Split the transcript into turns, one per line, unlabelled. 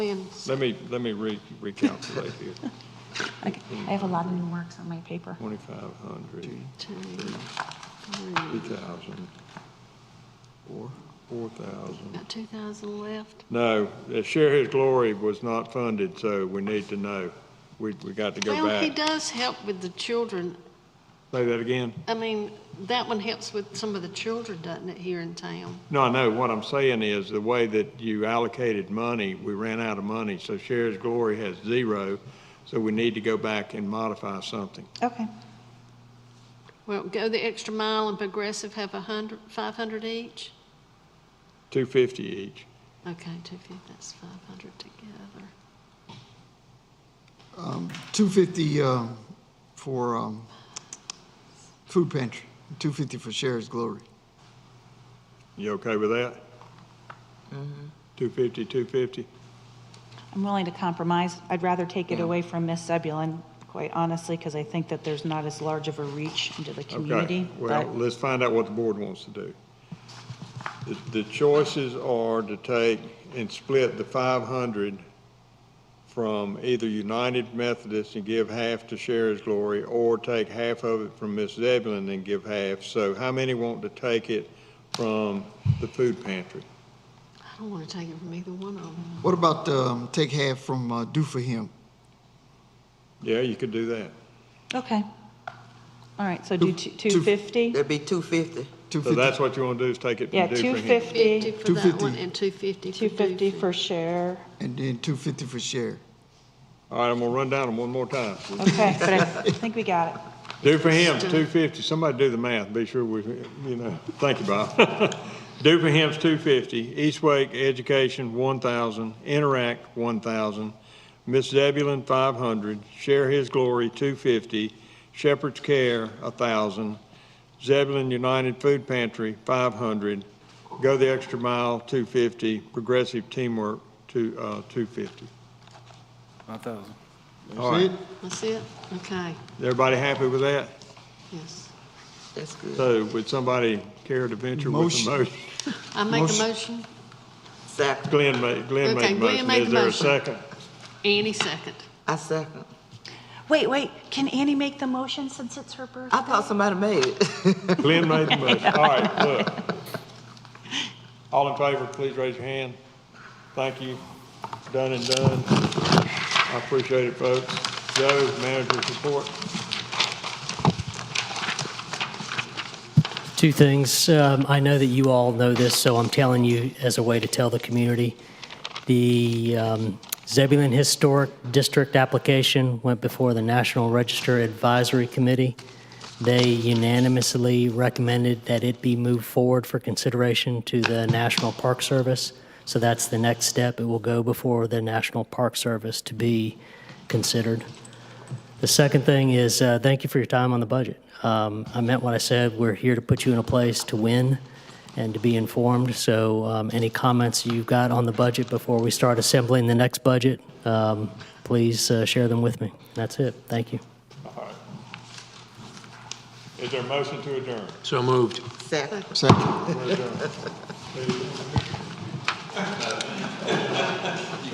plans.
Let me, let me re, recalculate here.
Okay, I have a lot of new works on my paper.
Twenty-five hundred, two thousand, four, four thousand.
Got 2,000 left.
No, uh, Share His Glory was not funded, so we need to know. We, we got to go
Well, he
back.
does help with the children.
Say that again?
I mean, that one helps with some of the children, doesn't it, here in town?
No, I know. What I'm saying is the way that you allocated money, we ran out of money. So Share His Glory has zero. So we need to go back and modify something.
Okay,
Well, go the extra mile and Progressive have 100, 500 each?
Two fifty each.
Okay, 250, that's 500 together.
250 um, for um, food pantry, 250 for Sheriff's Glory.
You okay with that? Two fifty, two fifty?
I'm willing to compromise. I'd rather take it away from Miss Zebulon, quite honestly, because I think that there's not as large of a reach into the
Okay.
community.
Well,
but-
let's find out what the board wants to do. The- The choices are to take and split the five hundred from either United Methodist and give half to Sherri's Glory, or take half of it from Miss Zebulon and give half. So how many want to take it from the food pantry?
I don't want to take it from either one of them.
What about um, take half from uh, Do For Him?
Yeah, you could do that.
Okay. All right, so do two-
Two- two-
250?
That'd be two fifty.
So
250
that's what you want to do, is take it
Yeah,
from Dufrahan?
50
250,
for that one
250.
and 250 for
250
Doofy.
for share.
and then 250 for Sheriff.
All right, I'm gonna run down them one more time.
Okay, but I think we got it.
Do for him's two fifty, somebody do the math, be sure we, you know, thank you, Bob. Do for him's two fifty, East Wake Education one thousand, Interact one thousand, Miss Zebulon five hundred, Share His Glory two fifty, Shepherd's Care a thousand, Zebulon United Food Pantry five hundred, Go the Extra Mile two fifty, Progressive Teamwork two, uh, two fifty.
5,000.
All
That's
right,
it?
That's it? Okay,
everybody happy with that?
yes.
That's good.
So would somebody care to venture with a
Motion.
motion?
I make a
Motion.
motion,
Second.
Glenn made, Glenn
Okay,
made
Glenn
the motion.
made
Is
the
there a
motion.
second?
Annie second.
I second.
Wait, wait, can Annie make the motion since it's her birthday?
I thought somebody made it.
Glenn made the motion. All right, look. All in favor, please raise your hand. Thank you. Done and done. I appreciate it, folks. Joe, manager's report.
Two things. Um, I know that you all know this, so I'm telling you as a way to tell the community. The um, Zebulon Historic District application went before the National Register Advisory Committee. They unanimously recommended that it be moved forward for consideration to the National Park Service. So that's the next step. It will go before the National Park Service to be considered. The second thing is, uh, thank you for your time on the budget. Um, I meant what I said. We're here to put you in a place to win and to be informed. So um, any comments you've got on the budget before we start assembling the next budget, um, please uh, share them with me. That's it. Thank you.
All right. Is there a motion to adjourn?
So moved.
Second.
Second.
We're adjourned.